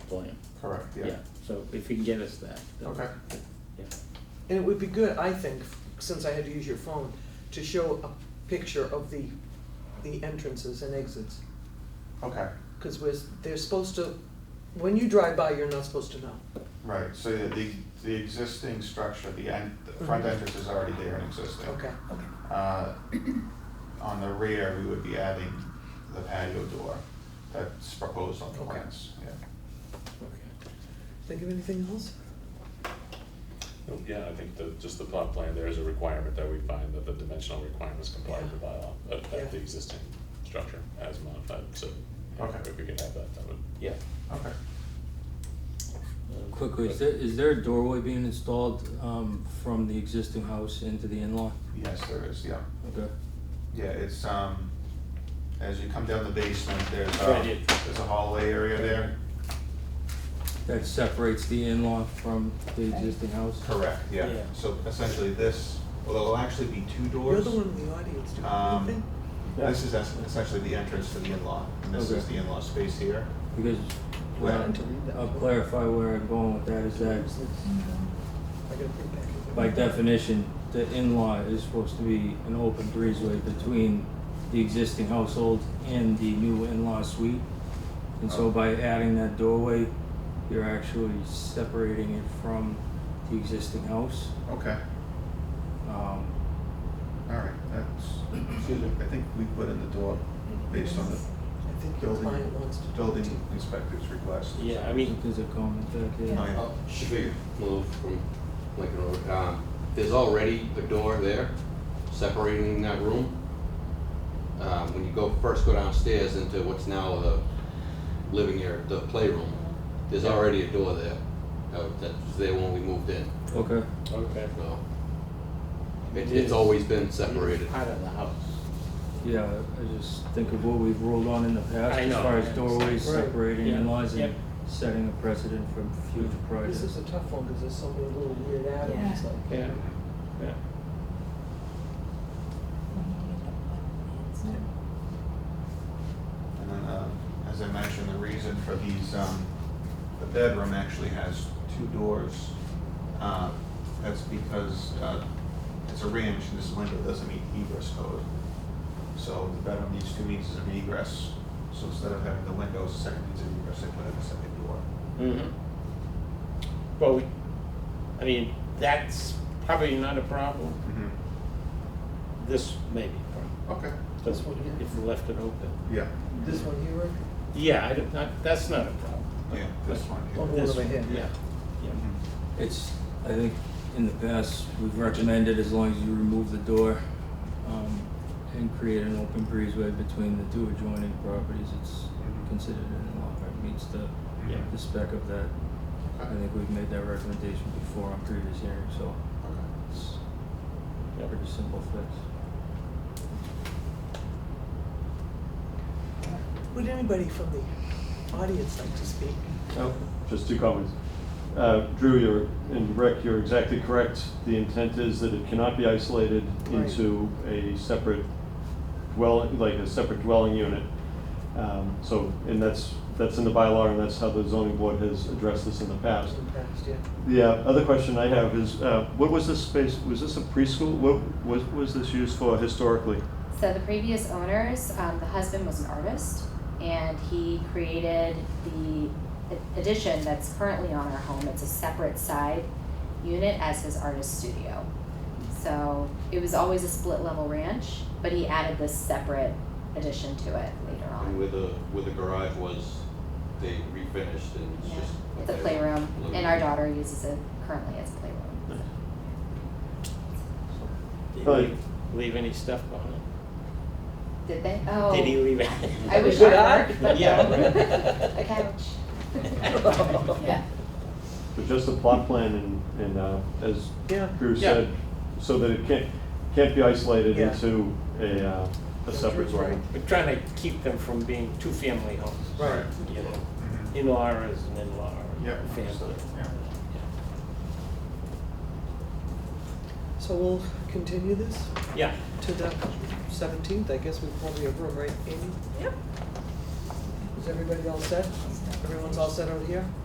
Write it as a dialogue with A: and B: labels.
A: volume.
B: Correct, yeah.
A: So if you can get us that. that-
B: Okay.
A: Yeah.
C: And it would be good, I think, since I had to use your phone, to show a picture of the, the entrances and exits.
B: Okay,
C: Because we're, they're supposed to, when you drive by, you're not supposed to know.
B: right, so the, the- the existing structure, the en, the front
C: Mhm.
B: entrance is already there and existing.
C: Okay,
B: Uh, On the rear, we would be adding the patio door that's proposed on the
C: Okay.
B: plans, yeah.
A: Okay.
C: think of anything else?
D: Yeah, I think the, just the plot plan, there is a requirement that we find that the dimensional requirements comply with the bylaw of,
C: Yeah.
D: of the existing structure as modified, so. yeah,
B: Okay.
D: If we could have that, that would,
A: Yeah.
B: Okay,
A: Um,
E: Quickly, is there, is there a doorway being installed um, from the existing house into the in-law?
B: yes, there is, yeah.
E: Okay.
B: Yeah, it's, um, as you come down the basement, there's
A: Right,
B: a,
A: yeah.
B: there's a hallway area there.
E: That separates the in-law from the existing house?
B: Correct, yeah.
A: Yeah.
B: So essentially this, well, there'll actually be two
C: You're
B: doors.
C: the one in the audience, do you have
B: Um,
C: anything?
B: This is es- essentially the entrance to the in-law, and this is
E: Okay.
B: the in-law space here.
E: Because,
B: Yeah.
E: well,
C: To read that.
E: I'll clarify where I'm going with that, is that
C: I gotta put it back in.
E: by definition, the in-law is supposed to be an open breezeway between the existing household and the new in-law suite. And so by adding that doorway, you're actually separating it from the existing house.
B: Okay,
E: Um,
B: all right, that's, excuse me, I think we put in the door based on the
C: I think your
B: building-
C: client wants to.
B: building inspector's request.
A: Yeah, I mean,
E: There's a comment back there.
B: No, yeah.
F: Uh, Should we move from Lincoln Road? Um, There's already a door there separating that room. Um, When you go, first go downstairs into what's now the living area, the playroom, there's already a door there. uh, That was there when we moved in,
E: Okay,
A: okay.
F: so. it- It's always been separated.
A: Part of the house.
E: yeah, I just think of what we've ruled on in the past
A: I
E: as
A: know,
E: far
A: I
E: as doorways
A: understand. Right.
E: separating
A: Yeah,
E: in-laws
A: yep. Mm-hmm.
E: and setting a precedent for future
C: This is
E: projects.
C: a tough one, because there's so many little weird add-ons,
G: Yeah.
C: like.
A: Yeah, yeah.
B: And then, uh, as I mentioned, the reason for these, um, the bedroom actually has two doors. Uh, That's because uh, it's a ranch and this window doesn't meet egress code. So the bedroom needs two means of egress. So instead of having the windows, the second means of egress, they put in a second door.
A: Mhm. Mm-hmm. Well, we- I mean, that's probably not a problem. This may be a problem.
B: Mm-hmm. Okay,
A: That's what, if we left it open.
B: yeah,
C: This one here, Rick?
A: Yeah, I don't, not, that's not a problem.
B: yeah, this one
C: Oh,
B: here.
C: one
A: This
C: over here.
A: Yeah, yeah.
B: Mhm.
E: It's, I think, in the past, we've recommended as long as you remove the door, um, and create an open breezeway between the two adjoining properties, it's
B: Mhm.
E: considered an in-law, it meets the,
A: Mm-hmm. Yeah.
E: the spec of that. I
B: Okay.
E: think we've made that recommendation before on previous hearings, so
B: Okay.
E: it's a
A: Yep.
E: pretty simple fix.
C: Would anybody from the audience like to speak?
H: Oh, Just two comments. Uh, Drew, you're, and Rick, you're exactly correct. The intent is that it cannot be isolated
C: Right.
H: into a separate dwelling, like a separate dwelling unit. Um, So, and that's, that's in the bylaw, and that's how the zoning board has addressed this in the past.
C: In the past, yeah.
H: The uh, other question I have is, uh, what was this space, was this a preschool? What was, was this used for historically?
I: So the previous owners, um, the husband was an artist, and he created the a- addition that's currently on our home. It's a separate side unit as his artist studio. So it was always a split level ranch, but he added this separate addition to it later
F: And
I: on.
F: where the, where the garage was, they refinished and it's
I: Yeah,
F: just.
I: it's a
F: like a
I: playroom,
F: living
I: and our
F: room.
I: daughter uses it currently as a playroom.
A: Did
H: Well,
A: he leave any stuff behind?
I: Did they? Oh,
A: Did he leave?
I: I wish
C: Did
I: I
C: I?
I: were.
A: Yeah, right.
I: A couch. Yeah.
H: But just the plot plan and, and uh, as
C: Yeah.
H: Drew
A: Yeah.
H: said, so that it can't, can't be isolated
C: Yeah.
H: into a, uh, a separate
C: Drew's right.
H: dwelling.
A: We're trying to keep them from being two family homes.
B: Right.
A: You know,
B: Mhm.
A: in-law is an in-law,
B: Yep,
A: family.
B: understood, yeah.
C: So we'll continue this
A: Yeah,
C: to the seventeenth, I guess we probably have room, right, Amy? Yep. Is everybody all set? Everyone's all set over here?